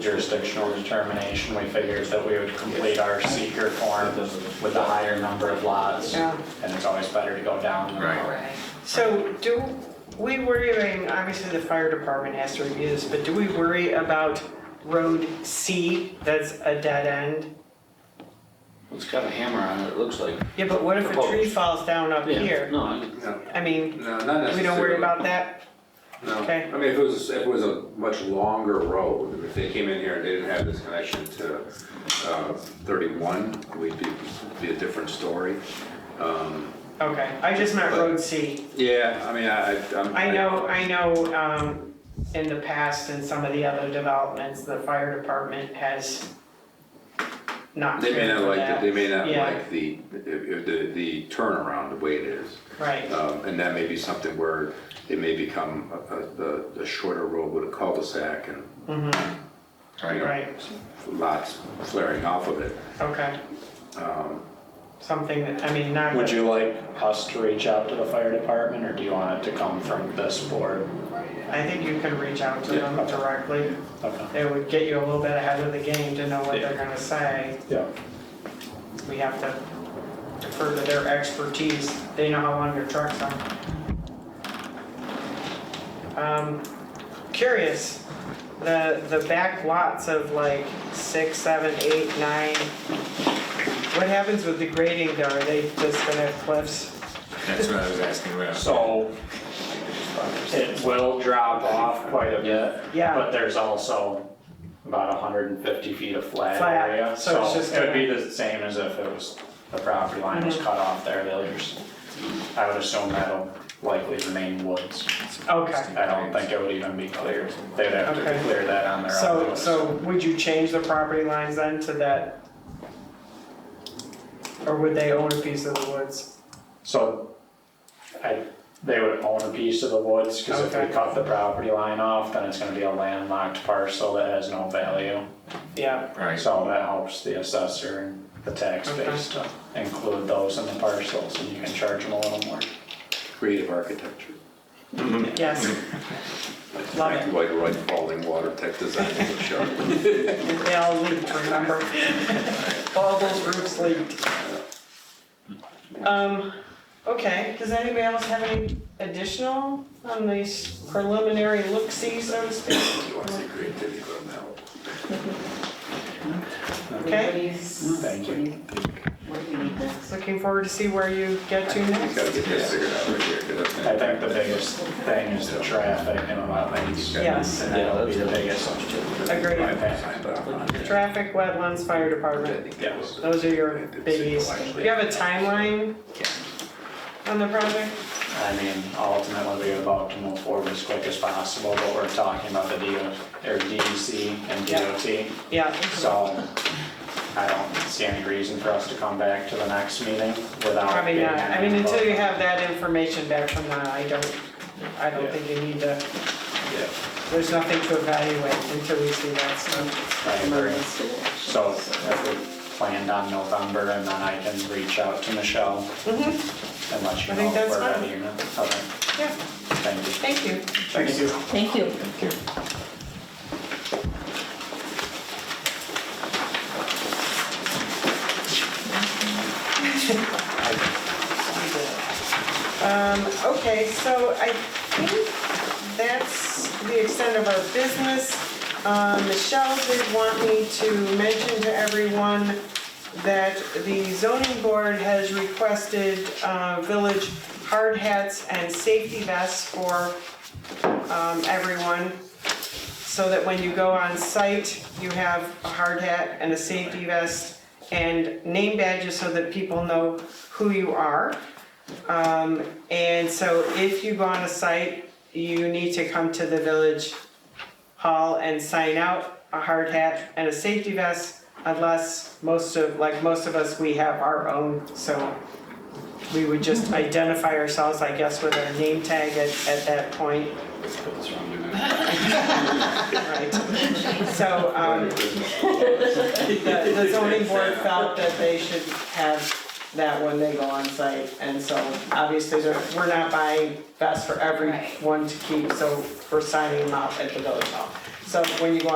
jurisdictional determination, we figured that we would complete our seeker form with a higher number of lots. Yeah. And it's always better to go down. than Right. up. Right. So do we worry, I mean, obviously the fire department has to review this, but do we worry about road C that's a dead end? It's got a hammer on it, it looks like. Yeah, but what if a tree Proposed. falls down up Yeah, here? No, I mean, No, I mean, no, not necessarily. we don't worry about that? No, okay. I mean, if it was, if it was a much longer road, if they came in here and they didn't have this connection to uh, 31, we'd be, it'd be a different story. Um, Okay, I just meant road C. Yeah, I mean, I, I- I'm. I know, I know, um, in the past in some of the other developments, the fire department has not They may cared not for like, that. the- they may not Yeah. like the, if- if the the turnaround, the way it is. Right, Um, And that may be something where it may become a- a- a shorter road with a cul-de-sac and you know, Mm-hmm. right, lots flaring off of it. okay. Something that, I mean, not. Would you like us to reach out to the fire department, or do you want it to come from this board? I think you could reach out to them directly. Okay. It would get you a little bit ahead of the game to know what they're gonna say. Yeah. We have to defer to their expertise. They know how long your trucks are. Um, curious, the, the back lots of like six, seven, eight, nine, what happens with the grading though? Are they just gonna have cliffs? That's what I was asking about. So it will drop off quite a bit. Yeah. But there's also about 150 feet of flat Flat, area. so it's just It would be the same as if it was, the property line Mm-hmm. was cut off there. They'll just, I would assume that'll likely remain woods. Okay. I don't think it would even be cleared. They'd have to Okay. clear that on their own. So, so would you change the property lines then to that? Or would they own a piece of the woods? So I, they would own a piece of the woods, because if Okay. we cut the property line off, then it's gonna be a landlocked parcel that has no value. Yeah, Right. So that helps the assessor and the tax Okay. base to include those in the parcels, and you can charge them a little more. Creative architecture. yes. Love it. Like right falling water tech design is a shark. They all leaked, remember? All those roofs leaked. Um, okay, does anybody else have any additional on these preliminary look-see, so to speak? You want to see creativity go now. What do you, Thank what do you. you think? What do we need next? Looking forward to see where you get to You gotta next. get this figured out right here. 'cause that's gonna- I think the biggest thing is the traffic and wetlands. Yes, And that'll be the biggest. agreed. Signed off on it. Traffic, wetlands, fire department. I think that was- Those are your biggies. Do you have a timeline on the project? I mean, ultimately, we're about to move forward as quick as possible, but we're talking about the DO, or DEC and Yeah. DOT. Yeah, So I don't see any reason for us to come back to the next meeting without. probably getting not. I any mean, until you vote. have that information back from them, I don't, I don't think you need to, Yeah. there's nothing to evaluate until we see that stuff. I agree. So So, if we planned on November and then I can reach out to Michelle and let you Mm-hmm. I know think if that's we're fine. ready or not. Okay, Yeah, thank you. thank you. Thank you. Thank you. Um, okay, so I think that's the extent of our business. Um, Michelle did want me to mention to everyone that the zoning board has requested, uh, village hard hats and safety vests for, um, everyone. So that when you go on site, you have a hard hat and a safety vest and name badges so that people know who you are. Um, and so if you go on a site, you need to come to the village hall and sign out a hard hat and a safety vest unless most of, like most of us, we have our own, so we would just identify ourselves, I guess, with our name tag at, at that point. Right. So, um, the the zoning board felt that they should have that when they go on site. And so obviously, they're- we're not buying vests for everyone to keep, so we're signing them out at the village hall. So when you go